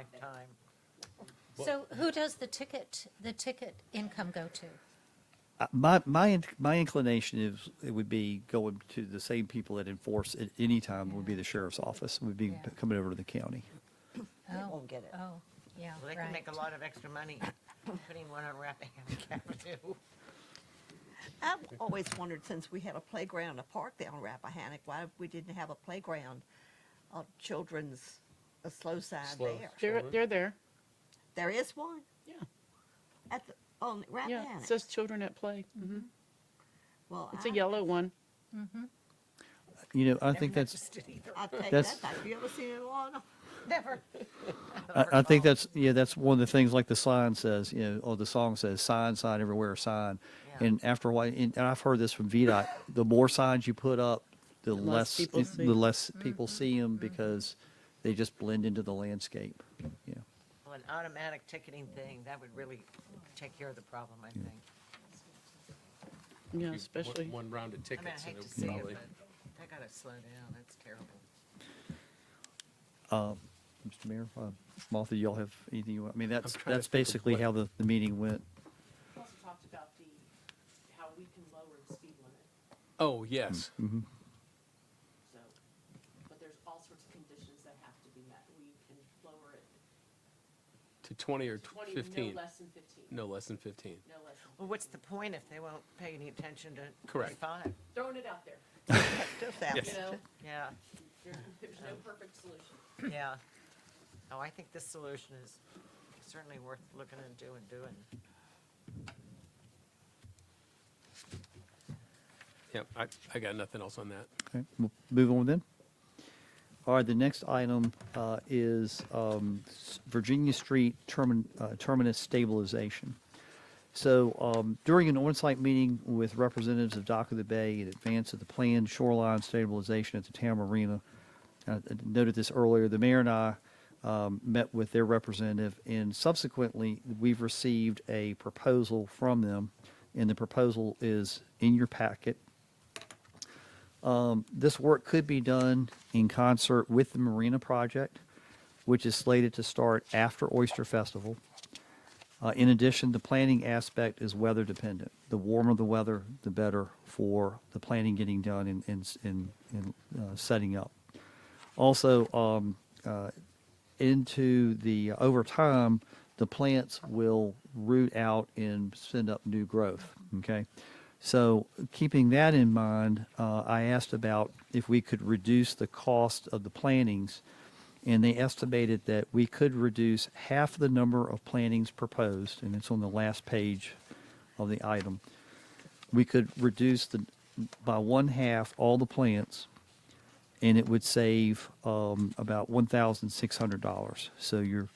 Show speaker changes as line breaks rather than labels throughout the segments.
lifetime.
So who does the ticket, the ticket income go to?
Uh, My, my, in- my inclination is, it would be going to the same people that enforce at any time would be the sheriff's office, would be
Yeah.
coming over to the county.
They
Oh,
won't get it.
Oh, yeah,
Well, They can
right.
make a lot of extra money putting one on Rappahannock Avenue.
I've always wondered, since we had a playground, and a park down Rappahannock, why we didn't have a playground, a children's, a slow side
Slow.
there.
They're,
Forward.
they're there.
There is one
Yeah.
at the, on
Yeah. It
Rappahannock.
says children at play. hmm
Well,
It's
I-
a yellow one.
You know, I
Never
think that's,
noticed it either.
I take
That's-
that back. You ever seen one?
Never.
I, I think
Overcome.
that's, yeah, that's one of the things, like the sign says, you know, or the song says, sign, sign everywhere, sign.
Yeah.
And after a while, and and I've heard this from VDOT, the more signs you put up, the
The less
less,
people
it-
see
the
'em.
less people see them because they just blend into the landscape, you know.
Well, An automatic ticketing thing, that would really take care of the problem, I think.
Yeah,
One-
especially.
One round of
I mean, I
tickets. and
hate
it
to
would
see it,
probably-
but they gotta slow down, that's terrible.
Mr. Mayor, uh, Martha, y'all have anything you want? I mean, that's,
trying to
that's
think of
basically
what-
how the, the meeting went.
We also talked about the, how we can lower the speed limit,
Oh, yes.
so, but there's all sorts of conditions that have to be met. We can lower it
To 20 or
to twenty,
15.
no less than fifteen,
No less than 15.
no less than,
Well, what's the point if they won't pay any attention to? the
Correct.
fine?
throwing it out there,
Just out.
you know?
Yeah,
There, there's no perfect solution.
yeah. Oh, I think this solution is certainly worth looking into and doing.
Yep, I, I got nothing else on that.
Okay, we'll move on then. All right, the next item uh, is um, s- Virginia Street termin- uh, terminus stabilization. So um, during an on-site meeting with representatives of Dock of the Bay in advance of the planned shoreline stabilization at the Tam Arena, I I noted this earlier, the mayor and I um, met with their representative, and subsequently, we've received a proposal from them, and the proposal is in your packet this work could be done in concert with the marina project, which is slated to start after Oyster Festival. Uh, in addition, the planning aspect is weather dependent. The warmer the weather, the better for the planning getting done and, and, and, and uh, setting up. Also, um, uh, into the uh, over time, the plants will root out and send up new growth. Okay, so keeping that in mind, uh, I asked about if we could reduce the cost of the plantings, and they estimated that we could reduce half the number of plantings proposed, and it's on the last page of the item. We could reduce the by one half all the plants and it would save um, about one thousand six hundred dollars. So you're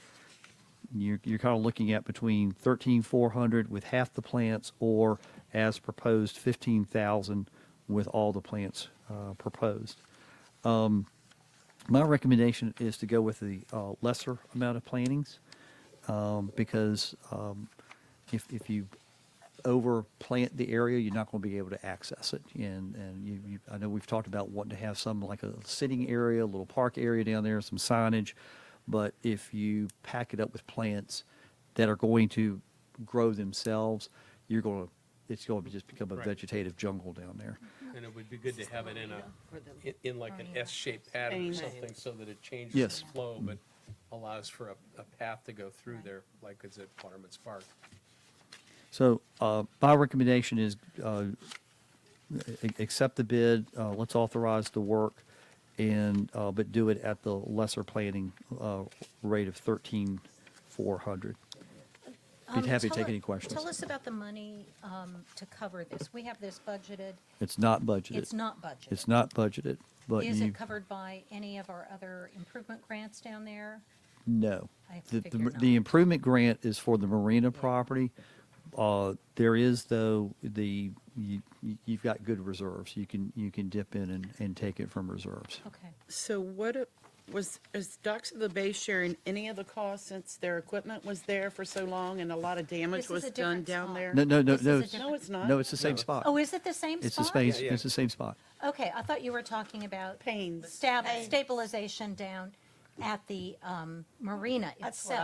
you're, you're kind of looking at between thirteen four hundred with half the plants, or as proposed, fifteen thousand with all the plants uh, proposed. Um, my recommendation is to go with the uh, lesser amount of plantings um, because um, if if you over plant the area, you're not going to be able to access it. And, and you, you, I know we've talked about wanting to have some like a sitting area, a little park area down there, some signage. But if you pack it up with plants that are going to grow themselves, you're going to, it's going to just become a
Right.
vegetative jungle down there.
And it would be good to have it in a,
For them.
in- in like an S-shaped pattern or
Space.
something so that it changes
Yes.
its flow, but allows for a, a path to go through there, like it's at Waterman's Park.
So uh, my recommendation is uh, a- accept the bid, uh, let's authorize the work, and, uh, but do it at the lesser planning uh, rate of 13,400. Be
Um,
happy to
tell
take
u-
any questions.
Tell us about the money um, to cover this. We have this budgeted.
It's not budgeted.
It's not budgeted.
It's not budgeted, but
Is
you,
it covered by any of our other improvement grants down there?
no.
I
The- The
figured
the
not.
improvement grant is for the marina property. Uh, There is, though, the, you- you- you've got good reserves. You can, you can dip in and, and take it from reserves.
Okay.
So what it- was, is Docks of the Bay sharing any of the costs since their equipment was there for so long and a lot of damage
This is
was
a
done
different
down
spot.
there?
No, no, no,
This is
no.
a
it's-
different-
No, it's not.
No, it's the same
No.
spot.
Oh, is it the same spot?
It's the space,
Yeah, yeah.
it's the same spot.
Okay, I thought you were talking about
Pains.
stab, stabilization down at the um, marina itself.